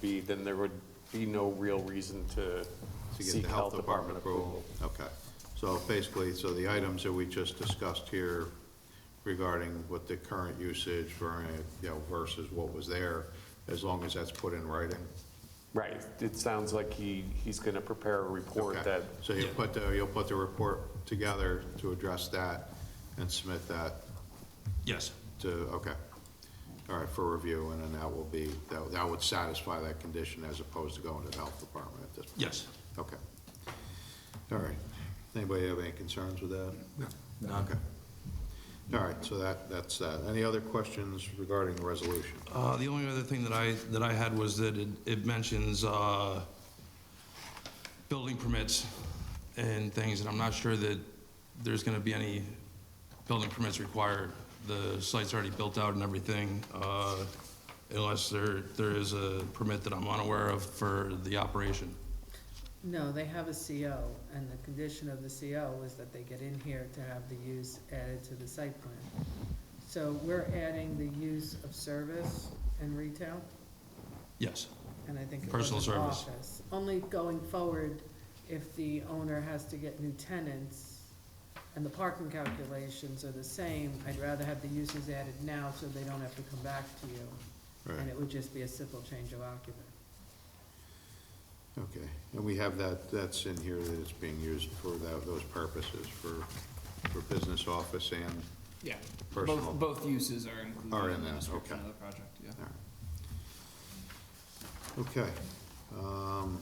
be, then there would be no real reason to To get seek the health department approval. Okay, so basically, so the items that we just discussed here regarding what the current usage ver- you know, versus what was there, as long as that's put in writing. Right, it sounds like he, he's going to prepare a report Okay. that, So you'll put, the you'll put the report together to address that and submit that Yes. to, okay. All right, for review, and then that will be, that that would satisfy that condition as opposed to going to the health department at this point? Yes. Okay. All right. Anybody have any concerns with that? No. Okay. All right, so that, that's that. Any other questions regarding the resolution? Uh, The only other thing that I, that I had was that it it mentions uh, building permits and things, and I'm not sure that there's going to be any building permits required. The site's already built out and everything, uh, unless there, there is a permit that I'm unaware of for the operation. No, they have a CO, and the condition of the CO is that they get in here to have the use added to the site plan. So we're adding the use of service and retail, Yes, and I think it was Personal an service. office. Only going forward, if the owner has to get new tenants and the parking calculations are the same, I'd rather have the uses added now so they don't have to come back to you. And Right, it would just be a simple change of occupant. okay. And we have that, that's in here that it's being used for tho- those purposes, for, for business office and, Yeah. Personal. Both, both uses are included Are in in the that, description okay. of the project, yeah. all right. Okay. um,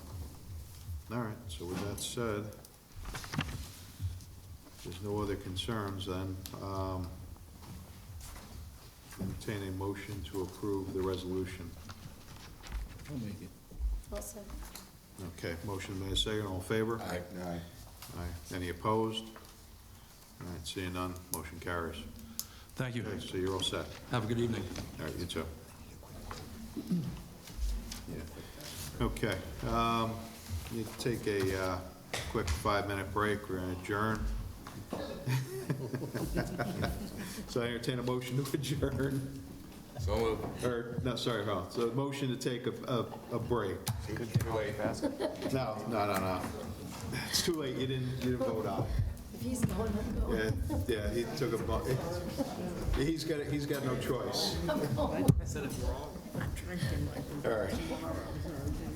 All right, so with that said, there's no other concerns then. um, Entertain a motion to approve the resolution. Also, Okay, motion made, second, all in favor? Aye. Aye. Any opposed? All right, seeing none, motion carries. thank you. Okay, so you're all set. Have a good evening. All right, you too. Yeah. Okay, um, need to take a, uh, quick five-minute break, we're gonna adjourn. So I entertain a motion to adjourn. So Or, no, sorry, hold on, so a motion to take a, a, a break. No, no, no, no. It's too late, you didn't, you didn't vote on it. if he's going, I'm going. Yeah, yeah, he took a, bu- he's got, he's got no choice. I'm drinking like All right.